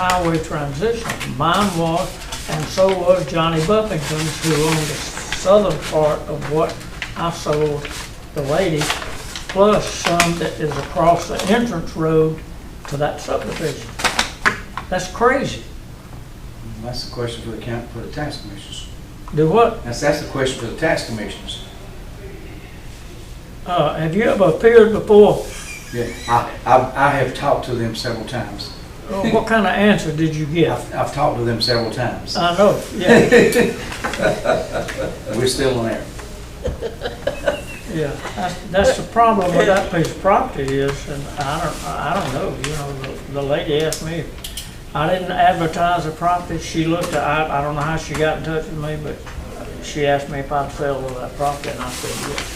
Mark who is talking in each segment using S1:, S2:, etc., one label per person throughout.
S1: highway transition. Mine was, and so was Johnny Buffington's, who owned the southern part of what I sold the lady, plus some that is across the entrance road to that subdivision. That's crazy.
S2: That's the question for the county, for the tax commissioners.
S1: Do what,
S2: That's, that's the question for the tax commissioners.
S1: uh, have you ever appeared before?
S2: Yeah, I, I, I have talked to them several times.
S1: Uh, What kind of answer did you get?
S2: I've, I've talked to them several times.
S1: I know, yeah,
S2: We're still on air.
S1: yeah. That's- That's the problem with that piece of property is, and I don't, I don't know, you know, the- the lady asked me. I didn't advertise the property. She looked, at- I, I don't know how she got in touch with me, but she asked me if I'd sell that property and I said yes.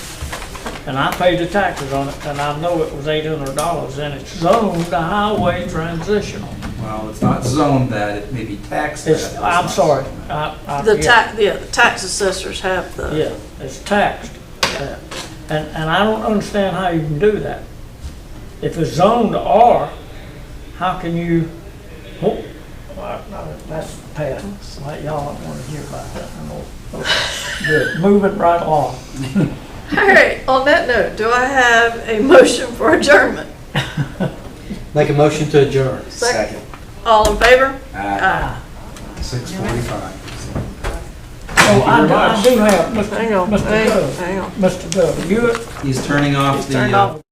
S1: And I paid the taxes on it and I know it was eight hundred dollars and it's zoned a highway transitional.
S3: Well, it's not zoned that, it may be taxed that.
S1: It's, I'm sorry, I, I.
S4: The
S1: yeah.
S4: tax, yeah, the tax assessors have the,
S1: Yeah, it's taxed. Yeah. And, and I don't understand how you can do that. If it's zoned R, how can you, oh, well, no, that's past, Like, y'all don't wanna hear about that no more. Good, Moving right on.
S4: all right, on that note, do I have a motion for adjournment?
S5: Make a motion to adjourn.
S4: Second. All in favor?
S2: Aye.
S4: Aye.
S3: Six forty-five.
S1: So I do- I do have, Mr.
S4: Hang on,
S1: Mr.
S4: hang on,
S1: Dove,
S4: hang on.
S1: Mr. Dove, you,
S3: He's turning off the.
S4: Turned
S3: uh,
S4: off.